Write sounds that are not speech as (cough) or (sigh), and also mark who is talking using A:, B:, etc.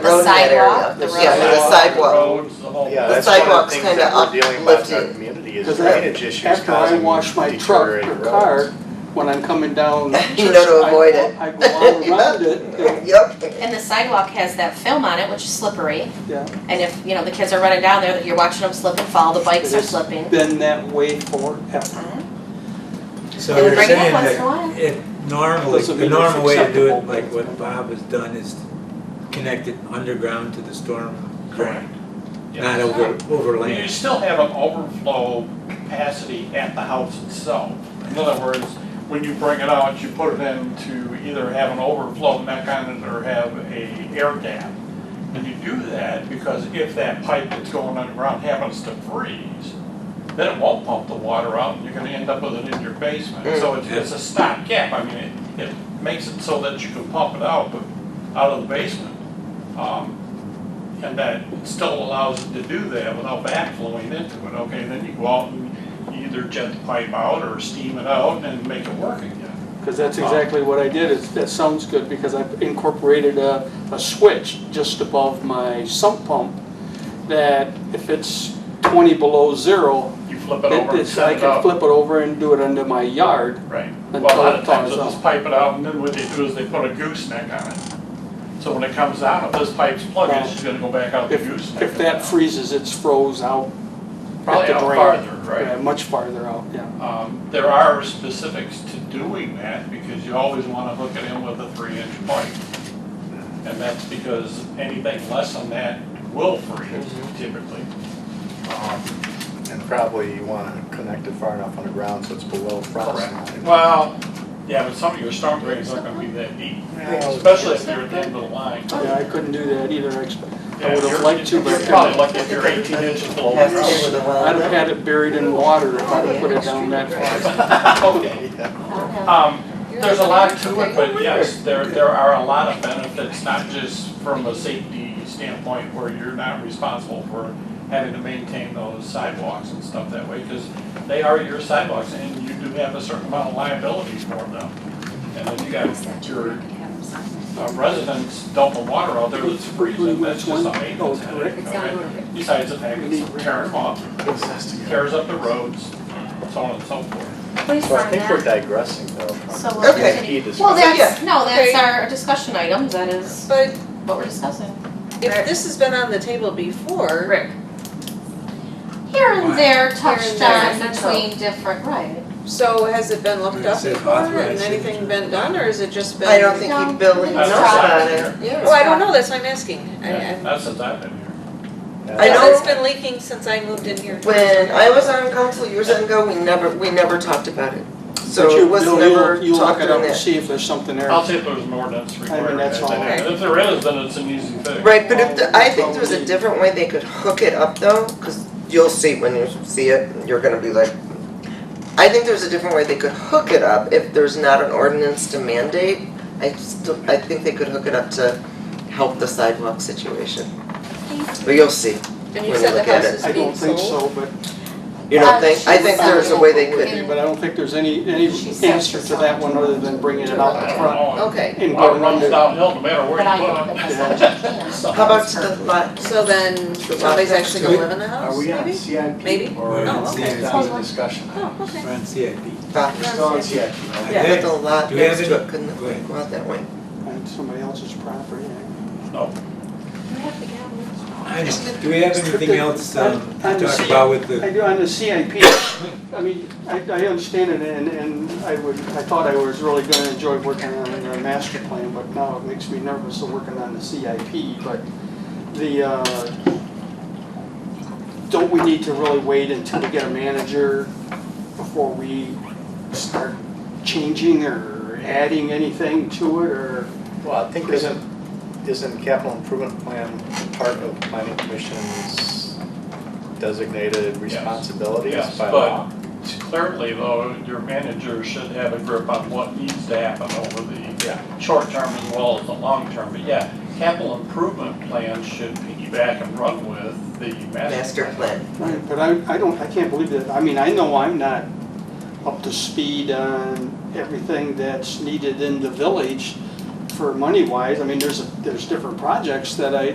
A: road in that area.
B: sidewalk, the
A: Yeah, the
B: road.
A: sidewalk.
C: roads, the whole.
D: Yeah,
A: The
D: that's one of
A: sidewalks
D: the things
A: kinda
D: that we're dealing with
A: uplifted.
D: in our community is
E: Because I-
D: drainage issues
E: After I
D: causing
E: wash my truck
D: deteriorating
E: or
D: roads.
E: car, when I'm coming
A: (laughs)
E: down.
A: You know to
E: I
A: avoid
E: go-
A: it.
E: I go
A: (laughs)
E: all around it,
A: Yep.
B: And the sidewalk has that film on it, which is slippery,
E: yeah,
B: and if, you know, the kids are running down there, that you're watching them slip and fall, the bikes are
E: It is.
B: slipping.
E: been that way forever.
A: Uh-huh.
F: So
B: They would
F: you're
B: bring it up
F: saying
B: once in a
F: that
B: while.
F: it normally,
E: Those would be
F: the normal way to do it,
E: acceptable.
F: like what Bob has done, is connect it underground to the storm drain,
C: Yeah.
F: not over, over
C: Well, You
F: land.
C: still have an overflow capacity at the house itself. In other words, when you bring it out, you put it in to either have an overflow neck on it or have a air dam. And you do that because if that pipe that's going underground happens to freeze, then it won't pump the water out and you're gonna end up with it in your basement. So it's, it's a stopgap. I mean, it, it makes it so that you can pump it out, but out of the basement. Um, and that still allows it to do that without backflowing into it, okay, then you go out and you either jet the pipe out or steam it out and make it work again.
E: Because that's exactly what I did, is, that sounds good, because I incorporated a, a switch just above my sump pump that if it's twenty below zero,
C: You flip it
E: it-
C: over and
E: it's, I
C: set it
E: can
C: up.
E: flip it over and do it under my yard.
C: Right, well,
E: until
C: a lot
E: it
C: of times
E: thaws
C: they'll just
E: out.
C: pipe it out and then what they do is they put a gooseneck on it. So when it comes out, if this pipe's plugged, it's just gonna go back out the
E: If,
C: gooseneck.
E: if that freezes, it's froze out,
C: Probably
E: the
C: out
E: drain.
C: farther, right?
E: yeah, much farther out, yeah.
C: Um, There are specifics to doing that because you always want to hook it in with a three-inch pipe. And that's because anything less than that will freeze
E: Mm-hmm.
C: typically. Um,
D: And probably you wanna connect it far enough underground so it's below frost
C: Correct.
D: line.
C: Well, yeah, but some of your storm drains aren't going to be that deep,
E: Oh,
C: especially if you're at the end of the line.
E: Yeah, I couldn't do that either, actually.
C: Yeah,
E: I would have
C: you're-
E: liked to, but I
C: You're
E: couldn't.
C: probably lucky if you're 18 inches below
A: Has to do
C: the
A: with the
E: I'd have
A: well.
E: had it buried in water if I'd have put it down that far.
C: ground. (laughs) Okay.
D: (laughs) Yeah.
C: Um, There's a lot to it, but yes, there, there are a lot of benefits, not just from a safety standpoint where you're not responsible for having to maintain those sidewalks and stuff that way, because they are your sidewalks and you do have a certain amount of liability for them. And then you got your uh, residents dumping water out there that's freezing, that's just a maintenance headache, okay? Besides the fact it's tearing off, tears up the roads, so on and so forth.
B: Please
D: So I
B: find
D: think we're
B: that.
D: digressing though.
B: So
D: from
B: we'll
D: the
A: Okay.
B: continue.
D: key discussion.
B: Well, that's,
A: Yeah.
B: no, that's
G: Okay.
B: our discussion item, that is
G: But
B: what we're discussing.
G: if this has been on the table before,
B: Rick. Here and there touched on
G: there.
B: between different, right.
G: so has it been looked up
F: It's an
G: before and
F: authorized
G: anything
F: signature.
G: been done, or has it just been?
A: I don't think you build it
B: No.
A: on it.
G: Well, I don't know, that's why I'm asking. I-
C: Yeah,
G: I-
C: That's since I've been here.
A: I
G: Because
A: know-
G: it's been leaking since I moved in here.
A: When I was on council years ago, we never, we never talked about it. So
E: But you-
A: it was
E: you'll-
A: never
E: you'll- You'll look
A: talked
E: it
A: on
E: up and
A: that.
E: see if there's something there.
C: I'll see if there's an ordinance
E: I mean,
C: required.
E: that's all.
C: If there is, then it's an easy fix.
A: Right, but if, the- I think there's a different way they could hook it up though, cause you'll see when you see it, you're gonna be like, I think there's a different way they could hook it up if there's not an ordinance to mandate. I still, I think they could hook it up to help the sidewalk situation. But you'll see.
G: And you
A: when you
G: said the
A: look at
G: house
A: it.
G: is
E: I
G: being
E: don't think
G: sold.
E: so, but,
A: You
B: Uh,
A: don't think, I
B: she
A: think
B: said
A: there's a way they
B: it
A: could,
B: in-
E: but I don't think there's any, any
B: She said
E: answer
B: she
E: to
B: saw
E: that
B: it.
E: one other than bringing it out the front
G: Okay,
E: and
C: Water
E: going
C: runs
E: under.
C: downhill no matter where
B: But I don't
C: you
B: think
C: put
B: that's
C: it.
B: what
C: (laughs)
B: you can.
A: how about to the lot?
G: so then somebody's actually gonna live in the house, Oh, maybe?
D: CIP?
G: Maybe.
D: Or
G: Oh,
D: is
G: okay.
D: it down to discussion?
G: Oh, okay.
F: Run CIP.
A: Back.
D: We're still on CIP.
F: I
A: Yeah,
F: think-
A: but the lot
F: Do we have
A: next to
F: any-
A: it couldn't
F: Go ahead.
A: go out that way.
E: On somebody else's property.
C: No,
F: I know. Do we have anything else um,
E: I'm-
F: to
E: I'm
F: talk
E: seeing-
F: about with
E: I
F: the,
E: do, on the CIP, I mean, I, I understand it and, and I would, I thought I was really gonna enjoy working on the master plan, but now it makes me nervous of working on the CIP, but the, uh, don't we need to really wait until we get a manager before we start changing or adding anything to it, or?
D: Well, I think isn't, isn't capital improvement plan part of planning commission's designated
C: yes,
D: responsibilities by law?
C: but clearly though, your manager should have a grip on what needs to happen over the short term as well as the long term. But yeah, capital improvement plans should piggyback and run with the
A: Master
C: master plan.
A: plan.
E: Right, but I, I don't, I can't believe that, I mean, I know I'm not up to speed on everything that's needed in the village for money-wise, I mean, there's, a- there's different projects that I,